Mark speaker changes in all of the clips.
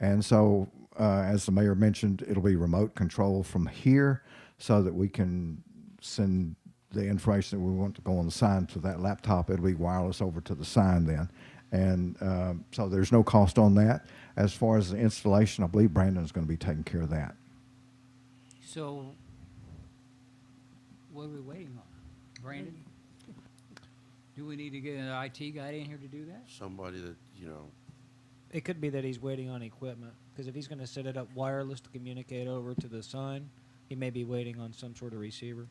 Speaker 1: And so, uh, as the mayor mentioned, it'll be remote control from here so that we can send the information that we want to go on the sign to that laptop. It'll be wireless over to the sign then. And uh, so there's no cost on that. As far as the installation, I believe Brandon's going to be taking care of that.
Speaker 2: So, what are we waiting on? Brandon? Do we need to get an IT guy in here to do that?
Speaker 3: somebody that, you know,
Speaker 4: It could be that he's waiting on equipment because if he's going to set it up wireless to communicate over to the sign, he may be waiting on some sort of receiver.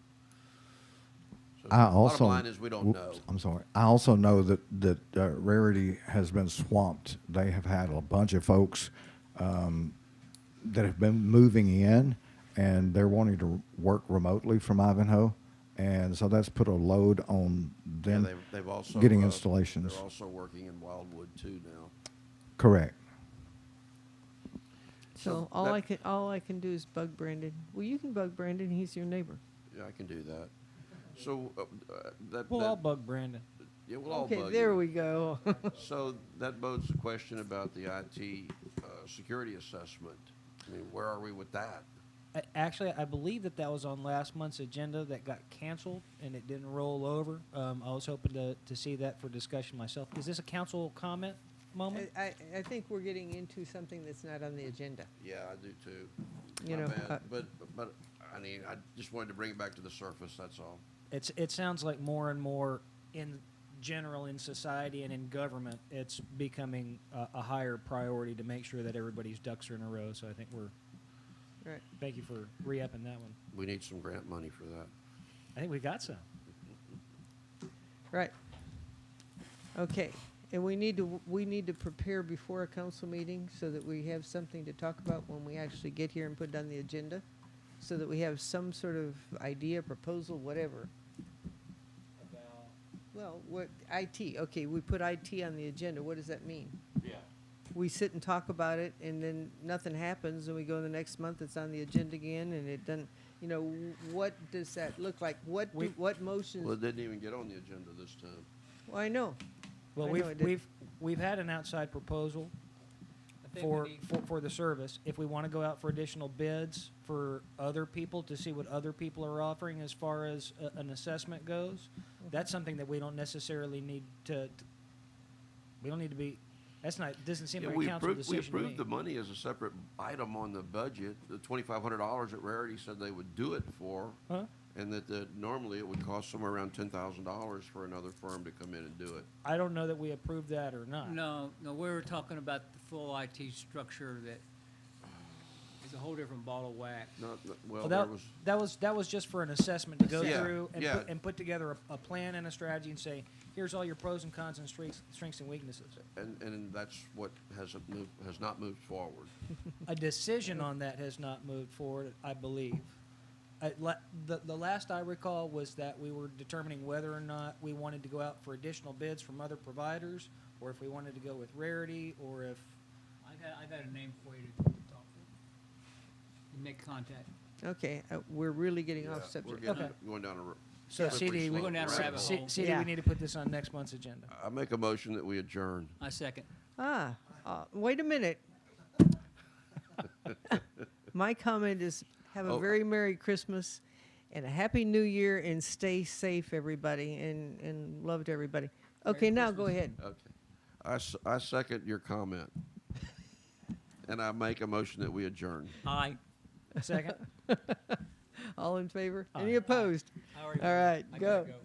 Speaker 3: so
Speaker 1: I also.
Speaker 3: bottom line is we don't
Speaker 1: whoops,
Speaker 3: know.
Speaker 1: I'm sorry. I also know that that uh, Rarity has been swamped. They have had a bunch of folks um, that have been moving in, and they're wanting to work remotely from Ivanhoe, and so that's put a load on
Speaker 3: Yeah,
Speaker 1: them.
Speaker 3: they've, they've also.
Speaker 1: getting
Speaker 3: uh,
Speaker 1: installations.
Speaker 3: They're also working in Wildwood too now.
Speaker 1: Correct.
Speaker 3: So
Speaker 5: So all
Speaker 3: that-
Speaker 5: I can all I can do is bug Brandon. Well, you can bug Brandon. He's your neighbor.
Speaker 3: Yeah, I can do that. So, uh, uh, that,
Speaker 4: Well, I'll
Speaker 3: that,
Speaker 4: bug Brandon.
Speaker 3: yeah, we'll all
Speaker 5: okay,
Speaker 3: bug
Speaker 5: there
Speaker 3: you.
Speaker 5: we go.
Speaker 3: So that bodes the question about the IT, uh, security assessment. I mean, where are we with that?
Speaker 4: I, actually, I believe that that was on last month's agenda that got canceled and it didn't roll over. Um, I was hoping to, to see that for discussion myself. Is this a council comment moment?
Speaker 5: I, I, I think we're getting into something that's not on the agenda.
Speaker 3: Yeah, I do too.
Speaker 5: You
Speaker 3: My
Speaker 5: know,
Speaker 3: bad.
Speaker 5: uh,
Speaker 3: But, but, I mean, I just wanted to bring it back to the surface, that's all.
Speaker 4: It's it sounds like more and more in general in society and in government, it's becoming a, a higher priority to make sure that everybody's ducks are in a row. So I think we're
Speaker 5: Right.
Speaker 4: thank you for re-upping that one.
Speaker 3: We need some grant money for that.
Speaker 4: I think we got some.
Speaker 5: Right. Okay. And we need to we need to prepare before a council meeting so that we have something to talk about when we actually get here and put it on the agenda, so that we have some sort of idea, proposal, whatever. Well, what IT? Okay, we put IT on the agenda. What does that mean?
Speaker 3: Yeah.
Speaker 5: We sit and talk about it, and then nothing happens, and we go the next month. It's on the agenda again, and it doesn't. You know, what does that look like? What do,
Speaker 4: We-
Speaker 5: what motions?
Speaker 3: Well, it didn't even get on the agenda this time.
Speaker 5: Well, I know.
Speaker 4: Well,
Speaker 5: I know
Speaker 4: we've
Speaker 5: I did.
Speaker 4: we've we've had an outside proposal
Speaker 2: I think
Speaker 4: for,
Speaker 2: we need,
Speaker 4: for for the service. If we want to go out for additional bids for other people to see what other people are offering as far as a, an assessment goes, that's something that we don't necessarily need to. to- we don't need to be. That's not doesn't seem
Speaker 3: Yeah,
Speaker 4: like
Speaker 3: we
Speaker 4: a council
Speaker 3: approved, we
Speaker 4: decision. to
Speaker 3: approved
Speaker 4: me.
Speaker 3: the money as a separate item on the budget, the twenty-five hundred dollars that Rarity said they would do it for,
Speaker 4: Huh?
Speaker 3: and that, the normally it would cost somewhere around ten thousand dollars for another firm to come in and do it.
Speaker 4: I don't know that we approved that or not.
Speaker 2: no, no, we were talking about the full IT structure that is a whole different ball of wax.
Speaker 3: Not, not- well,
Speaker 4: Well,
Speaker 3: there
Speaker 4: that,
Speaker 3: was,
Speaker 4: that was that was just for an assessment to go
Speaker 3: Yeah,
Speaker 4: through and,
Speaker 3: yeah.
Speaker 4: put, and put together a, a plan and a strategy and say, here's all your pros and cons and strengths, strengths and weaknesses.
Speaker 3: and, and that's what hasn't moved, has not moved forward.
Speaker 4: a decision on that has not moved forward, I believe. I, la- the, the last I recall was that we were determining whether or not we wanted to go out for additional bids from other providers, or if we wanted to go with Rarity, or if
Speaker 2: I got, I got a name for you to talk to. Make contact.
Speaker 5: Okay, uh, we're really getting
Speaker 3: Yeah,
Speaker 5: off
Speaker 3: We're
Speaker 5: subject.
Speaker 3: getting,
Speaker 4: Okay.
Speaker 3: going down a. r-
Speaker 4: so.
Speaker 3: slippery
Speaker 4: CD, we,
Speaker 3: slope
Speaker 2: Going down a
Speaker 3: right
Speaker 2: rabbit
Speaker 3: now.
Speaker 4: C-
Speaker 2: hole.
Speaker 4: CD,
Speaker 5: Yeah.
Speaker 4: we need to put this on next month's agenda.
Speaker 3: I make a motion that we adjourn.
Speaker 2: I second.
Speaker 5: Ah, uh, wait a minute. My comment is have a
Speaker 3: Oh.
Speaker 5: very Merry Christmas and a Happy New Year and stay safe, everybody, and, and love to everybody. Okay, now go ahead.
Speaker 3: Okay. I, s- I second your comment. And I make a motion that we adjourn.
Speaker 2: Aye.
Speaker 4: Second.
Speaker 5: All in favor?
Speaker 4: Aye.
Speaker 5: Any opposed?
Speaker 2: I already
Speaker 5: All
Speaker 2: voted.
Speaker 5: right,
Speaker 2: I gotta
Speaker 5: go.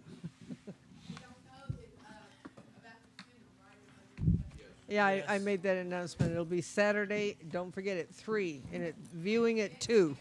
Speaker 5: Yeah, I, I
Speaker 2: Yes.
Speaker 5: made that announcement. It'll be Saturday. Don't forget at three, and it viewing at two.